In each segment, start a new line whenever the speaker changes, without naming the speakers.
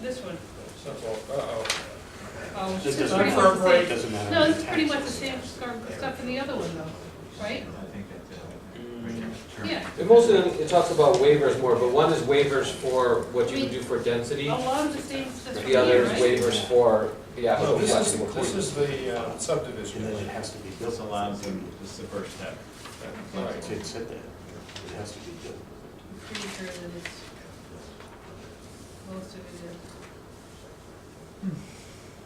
This one.
Simple, uh-oh.
Oh, it's
This
pretty
doesn't
much
matter.
the same-
Doesn't matter.
No, it's pretty much the same scar- stuff in the other one though, right?
uh,
Yeah,
And most of them, it talks about waivers more, but one is waivers for what you would do for
a
density.
lot of the same stuff from
The other
here,
is
Oh, right?
waivers for the
No,
applicant.
this is,
collecting the
this is the uh,
And
subdivision.
then it has to be built.
This allows them, this is the first step.
All
Right,
right.
it said that. It has to be built.
I'm Pretty sure that it's, most of it is.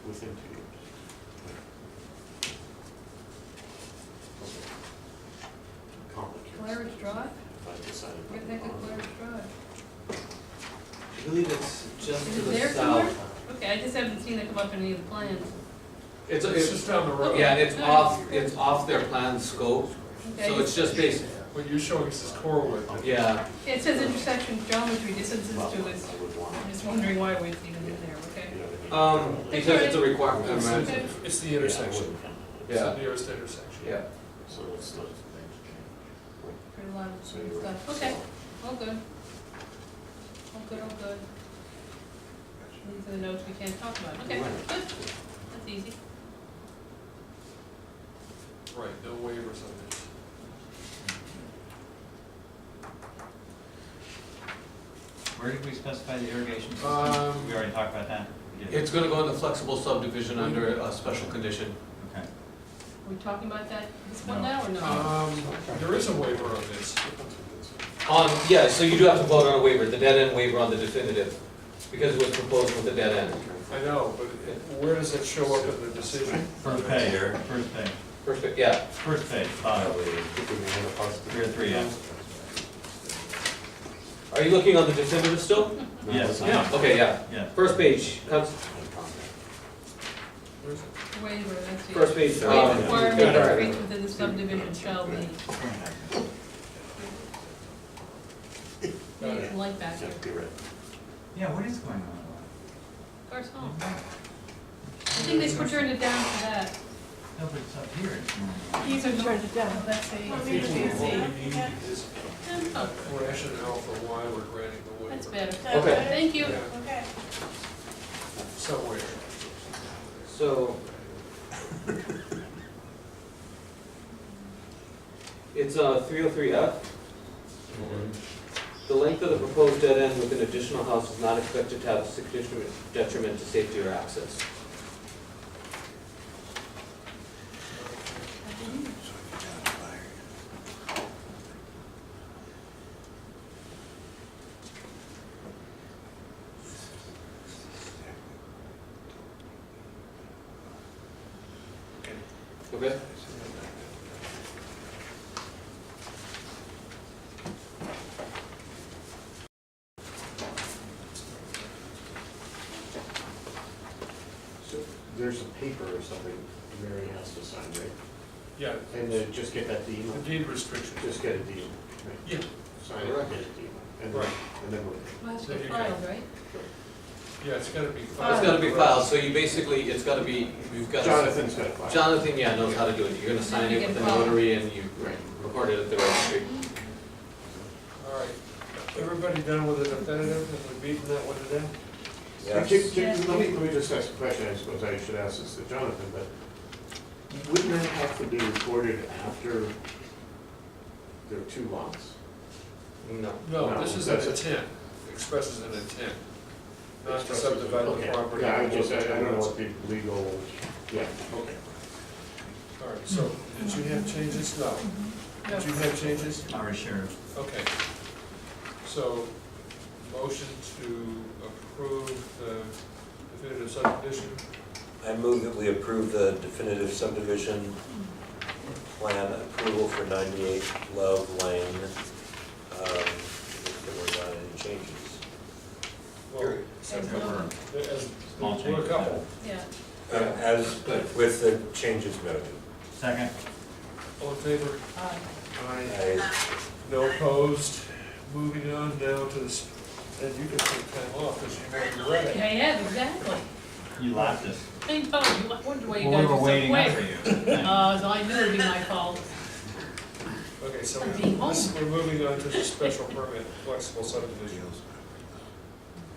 within two years. Complicated.
Claridge Drive,
If I decided
where the heck is
not
Claridge Drive?
I believe it's just
Is
to
it
the
there
south.
Okay, I just haven't seen it come up in any of the plans.
It's,
It's
it's,
just down the road.
yeah, and it's off, it's off their planned scope, so
Okay,
it's just basic,
What you're showing us is Corwood.
yeah.
it says intersection geometry distances
Well,
to is,
I would want,
I'm just wondering why it's even in there, okay?
you know what I mean?
Um, because it's a requirement, right?
Okay.
It's the intersection. It's
Yeah.
the nearest intersection.
Yeah.
So it's not.
Pretty lot of
so you're-
stuff, okay, all good. All good, all good. These are the notes we can't talk about, okay,
Right.
good, that's easy.
Right, no waivers on this.
Where did we specify the irrigation
Um,
system? We already talked about that. We did.
It's gonna go into flexible subdivision under a special condition.
Okay.
Are we talking about that, this one
No.
now or no?
Um, there is a waiver on this.
On, Um, yeah, so you do have to vote on a waiver, the dead end waiver on the definitive, because it was proposed with the dead end.
I know, but it- where does it show up in the decision?
First page, first page,
Perfect, yeah,
first page, bottom, here are three, yeah.
are you looking on the definitive still?
Yes,
Yeah.
Okay, yeah,
yeah.
first page, cons-
Where's it?
Waiver, that's the.
first page,
Rate
um,
requirement or rates within the subdivision shall be,
Got
you
it.
can like that
Yeah,
here,
you're right.
Yeah, what is going on?
Gar's home. I think they put turned it down for that.
No, but it's up here. it's normal.
These are turned it down. That's a.
What we need is
Oh,
rationale for why we're granting the
That's
waiver
better,
Okay.
thank you.
Yeah.
Okay.
somewhere.
so. It's, uh, three oh three F. The length of the proposed dead end with an additional house is not expected to have a significant detriment to safety or access. Okay?
So There's a paper or something Mary has to sign, right?
Yeah,
And then just get that deed,
the deed restriction.
just get a deed. right?
Yeah,
Sign it, get a deed. And then,
Right.
and then we're.
Must be
There you go.
filed, right?
yeah, it's gotta be filed.
It's gotta be filed, so you basically, it's gotta be, you've got.
Jonathan's got to file.
Jonathan, yeah, knows how to do it, you're gonna sign it with a notary and you record it at the registry.
All right, everybody done with the definitive, have we beaten that one to death?
Can- can-
Yes.
can- Let me, let me just ask a question, I suppose I should ask this to Jonathan, but wouldn't that have to be recorded after there are two lots?
No.
No,
No,
this is an
that's-
intent, expresses an intent, not to
Expresses-
subdivide the
Okay.
property.
Yeah, I just, I I don't know what the legal, yeah, okay.
All right, so, did you have changes? No. Did you have changes?
Our sheriff.
Okay. So, motion to approve the definitive subdivision,
I move that we approve the definitive subdivision plan approval for 98 Love Lane, um, if there were not any changes.
well,
There's no-
Over.
as,
Small
there were a
changes.
couple.
Yeah,
Um, As, with the changes noted.
Second,
All in favor?
aye.
Aye.
I,
No opposed. Moving on now to this, and you can take time off, because you know you're ready.
Yeah, yeah, exactly.
you left us.
I know, you I wondered why
We
you guys
were
were so
waiting
quick.
for you.
Uh, so I knew it'd be my fault.
Okay, so
Like being home.
we're moving on to the special permit flexible subdivisions.